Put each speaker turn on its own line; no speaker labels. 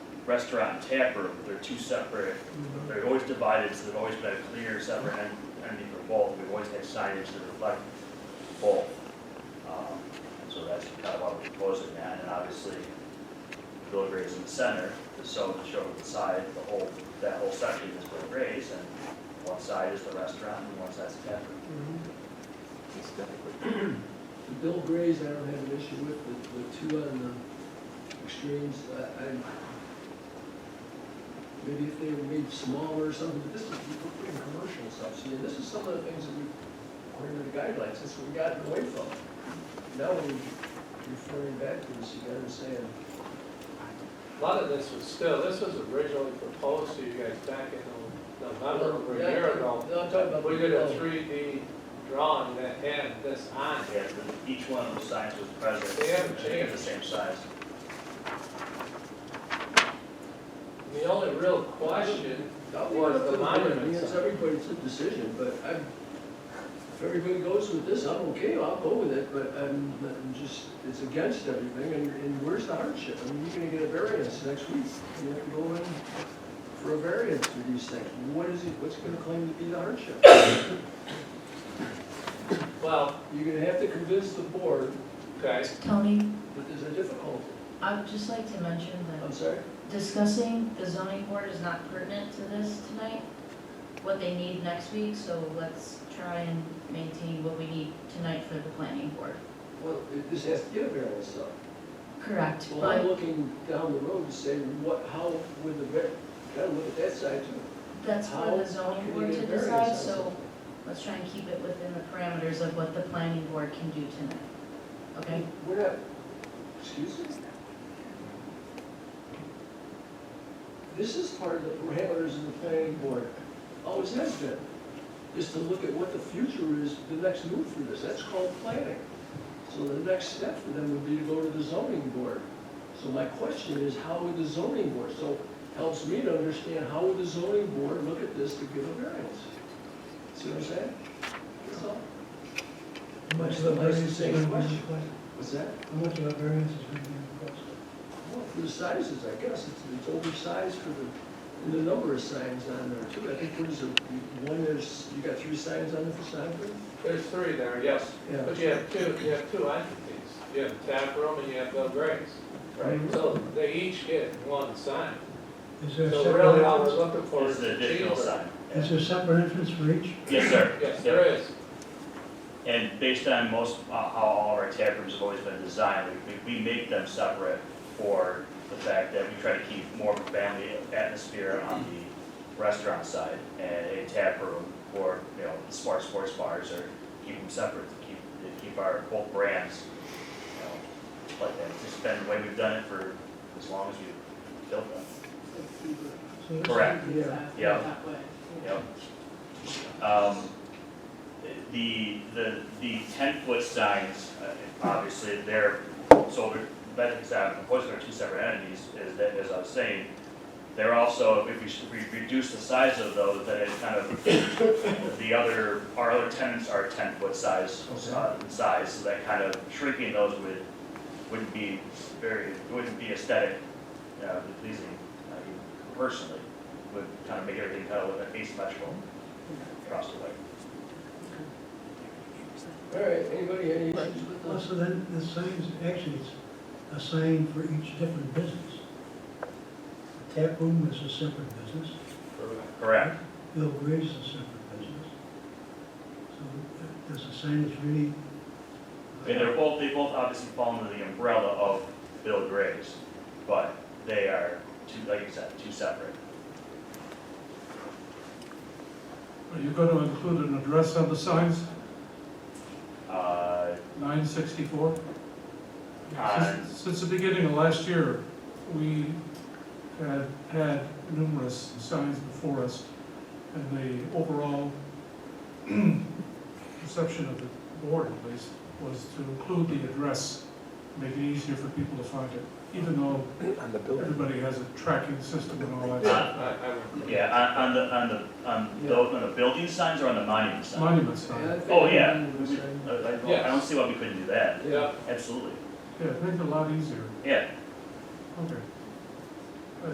restaurant and tap room, they're two separate,
Mm-hmm.
they're always divided, so they've always been a clear separate en- entity for both, we've always had signage that reflect both. Um, So that's kind of why we're proposing that, and obviously, Bill Gray's in the center, so to show the side, the whole, that whole section is Bill Gray's, and one side is the restaurant, and one side's the tap room.
Aesthetically.
The Bill Grays, I don't have an issue with, the, the two on the extremes, I, I, maybe if they were made smaller or something, but this is, we're putting commercial stuff, see, and this is some of the things that we, according to the guidelines, that's what we gotten away from. Now we're referring back to this, you gotta understand,
A lot of this was still, this was originally proposed to you guys back in November, over a year ago.
No, I'm talking about.
We did a three D drawing that had this on it.
Yeah, the- each one of those signs was present.
They haven't
I think it's
changed.
The same size.
The only real question,
That
Well, it's
was
the
the monument,
monument
it's
sign.
everybody's decision, but I'm, if everybody goes with this, I'm okay, I'll go with it, but I'm, I'm just, it's against everything, and, and where's the hardship? I mean, you're gonna get a variance next week, you have to go in for a variance for these things, what is it, what's gonna claim to be the hardship?
well,
You're gonna have to convince the board
okay,
Tony,
that there's a difficulty,
I would just like to mention
I'm
that
sorry?
discussing the zoning board is not pertinent to this tonight, what they need next week, so let's try and maintain what we need tonight for the planning board.
Well, it- this has to get a variance though.
Correct,
Well, I'm
but
looking down the road to say, what, how would the, var- gotta look at that side too.
that's for the
How
zoning
can
board
you
to
get variance on
decide, so
something?
let's try and keep it within the parameters of what the planning board can do tonight. Okay?
We're not, excuse me? This is part of the parameters of the planning board, Oh, always has been, is to look at what the future is, the next move for this, that's called planning. So the next step for them would be to go to the zoning board. So my question is, how would the zoning board, so helps me to understand, how would the zoning board look at this to give a variance? See what I'm saying? That's all. Much of the variance is being What's that?
Much of the variance is being requested.
Well, for the sizes, I guess, it's, it's oversized for the, and the number of signs on there too. I think there's a, one is, you got three signs on the facade, but,
there's three there, yes.
yeah.
But you have two, you have two entities, you have tap room and you have Bill Gray's.
Right.
So they each get one sign.
Is there a
So really all we're
separate,
looking for
It's
is
the
the
additional
cheaper.
sign.
is there separate entrance for each?
Yes, sir. Yep.
Yes, there is.
And based on most, uh, how all our tap rooms have always been designed, we, we we make them separate for the fact that we try to keep more of a family atmosphere on the restaurant side and a tap room or, you know, the smart sports bars or keep them separate, to keep, to keep our both brands, you know, like that. It's just been the way we've done it for as long as we've built them.
So it's-
Correct.
Yeah.
Yeah. Yep. Um, The, the, the ten-foot signs, uh, obviously, they're, so the benefits out of proposing are two separate entities, is that, as I was saying, they're also, if we, should- we reduce the size of those, then it kind of, the other, our other tenants are ten-foot size, uh, size, so that kind of shrinking those would, wouldn't be very, wouldn't be aesthetic, uh, pleasing, I mean, personally would kind of make everything kind of look asymmetrical across the way.
All right, anybody, any issues with
Well,
this?
so then the signs, actually, it's a sign for each different business. The Tap room is a separate business,
Correct.
Bill Gray's is a separate business. So does the sign is really? uh,
And they're both, they both obviously fall under the umbrella of Bill Gray's, but they are two, like you said, two separate.
Are you going to include an address on the signs,
Uh,
964?
Uh,
Since- Since the beginning of last year, we had had numerous signs before us, and the overall perception of the board, at least, was to include the address, make it easier for people to find it, even though
On the building.
everybody has a tracking system and all that.
Uh,
stuff.
I, I would.
Yeah, on, on the, on the, on the, on the building signs or on the monument sign?
Monument sign,
Oh, yeah.
I
We-
think-
I, I don't- I don't
Yes.
see why we couldn't do that.
Yeah,
Absolutely.
yeah, it made it a lot easier,
Yeah,
okay.